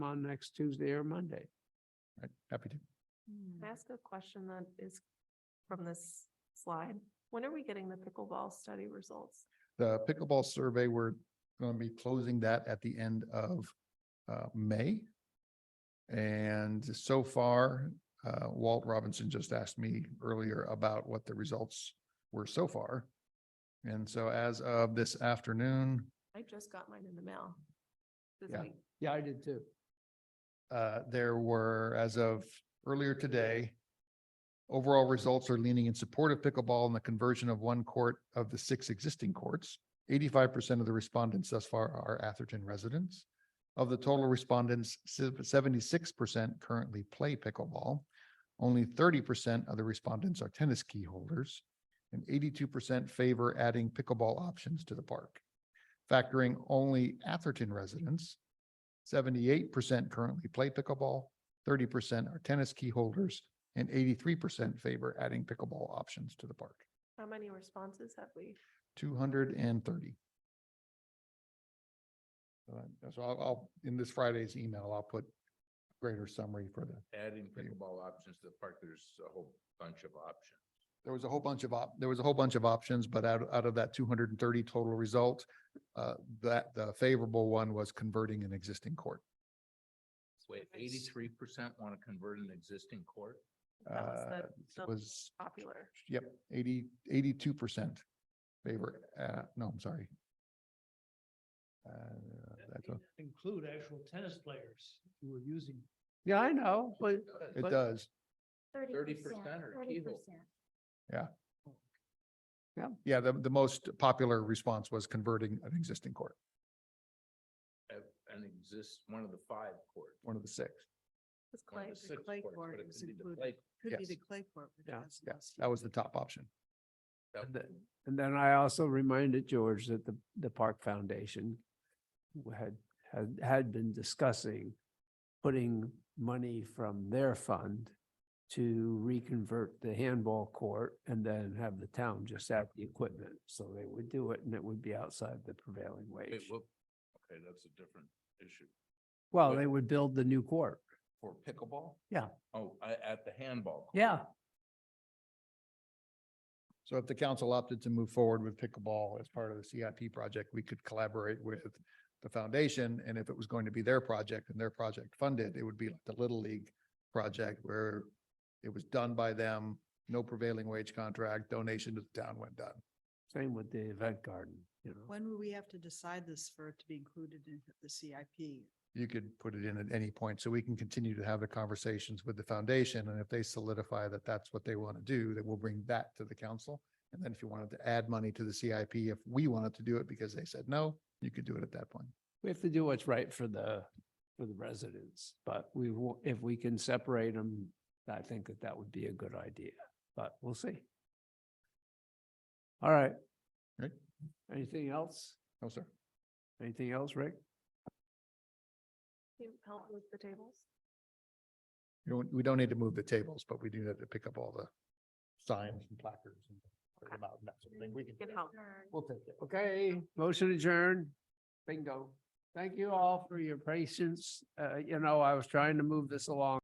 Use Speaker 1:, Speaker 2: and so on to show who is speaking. Speaker 1: on next Tuesday or Monday.
Speaker 2: Right, happy to.
Speaker 3: Can I ask a question that is from this slide? When are we getting the pickleball study results?
Speaker 2: The pickleball survey, we're going to be closing that at the end of uh, May. And so far, uh, Walt Robinson just asked me earlier about what the results were so far. And so as of this afternoon,
Speaker 3: I just got mine in the mail. this
Speaker 2: Yeah.
Speaker 3: week.
Speaker 1: Yeah, I did too.
Speaker 2: uh, there were, as of earlier today, overall results are leaning in support of pickleball and the conversion of one court of the six existing courts. Eighty-five percent of the respondents thus far are Atherton residents. Of the total respondents, seventy-six percent currently play pickleball. Only thirty percent of the respondents are tennis key holders, and eighty-two percent favor adding pickleball options to the park. Factoring only Atherton residents, Seventy-eight percent currently play pickleball, thirty percent are tennis key holders, and eighty-three percent favor adding pickleball options to the park.
Speaker 3: How many responses have we?
Speaker 2: Two hundred and thirty. So I'll, I'll, in this Friday's email, I'll put greater summary for the,
Speaker 4: adding
Speaker 2: Yeah.
Speaker 4: pickleball options to the park, there's a whole bunch of options.
Speaker 2: there was a whole bunch of op, there was a whole bunch of options, but out, out of that two hundred and thirty total result, uh, that, the favorable one was converting an existing court.
Speaker 4: Wait,
Speaker 3: Nice.
Speaker 4: eighty-three percent want to convert an existing court?
Speaker 3: That was
Speaker 2: Uh,
Speaker 3: the- the
Speaker 2: Was
Speaker 3: Popular.
Speaker 2: Yep, eighty, eighty-two percent favor, uh, no, I'm sorry. Uh, that's what-
Speaker 5: include actual tennis players who were using.
Speaker 1: Yeah, I know, but
Speaker 2: It
Speaker 4: Uh,
Speaker 1: But-
Speaker 2: does,
Speaker 4: Thirty percent or
Speaker 6: Thirty
Speaker 4: keyhole?
Speaker 6: percent.
Speaker 2: yeah, the, the most popular response was converting an existing court,
Speaker 4: Uh, And exists one of the five courts.
Speaker 2: one of the six,
Speaker 3: This
Speaker 4: one of
Speaker 3: clay-
Speaker 4: the six
Speaker 7: clay
Speaker 4: courts,
Speaker 7: court
Speaker 4: but it
Speaker 7: was
Speaker 4: could be the
Speaker 7: included.
Speaker 4: clay-
Speaker 7: Could be
Speaker 2: Yes.
Speaker 7: the clay court. which
Speaker 1: Yeah,
Speaker 7: was
Speaker 2: yeah,
Speaker 7: last
Speaker 2: that was
Speaker 7: year.
Speaker 2: the top option.
Speaker 4: that
Speaker 1: And
Speaker 4: would
Speaker 1: the- and then I also reminded George that the, the Park Foundation had, had, had been discussing putting money from their fund to reconvert the handball court and then have the town just add the equipment. So they would do it and it would be outside the prevailing
Speaker 4: wait,
Speaker 1: wage.
Speaker 4: whoop. Okay, that's a different issue.
Speaker 1: Well,
Speaker 4: wait.
Speaker 1: they would build the new court.
Speaker 4: For pickleball?
Speaker 1: Yeah.
Speaker 4: Oh, I, at the handball. court.
Speaker 1: Yeah,
Speaker 2: So if the council opted to move forward with pickleball as part of the CIP project, we could collaborate with the foundation, and if it was going to be their project and their project funded, it would be like the Little League project where it was done by them, no prevailing wage contract, donation to the town when done.
Speaker 1: same with the event garden, you know.
Speaker 7: When will we have to decide this for it to be included in the CIP?
Speaker 2: you could put it in at any point, so we can continue to have the conversations with the foundation, and if they solidify that that's what they want to do, then we'll bring that to the council. And then if you wanted to add money to the CIP, if we wanted to do it because they said no, you could do it at that point.
Speaker 1: We have to do what's right for the, for the residents, but we, wa- if we can separate them, I think that that would be a good idea, but we'll see. All right.
Speaker 2: Right.
Speaker 1: Anything else?
Speaker 2: No, sir.
Speaker 1: Anything else, Rick?
Speaker 3: Can you help with the tables?
Speaker 2: You don't, we don't need to move the tables, but we do need to pick up all the signs and placards and put them out and that sort of thing. We can.
Speaker 3: Can help.
Speaker 1: We'll take it. Okay, motion adjourned. Bingo. Thank you all for your patience. Uh, you know, I was trying to move this along.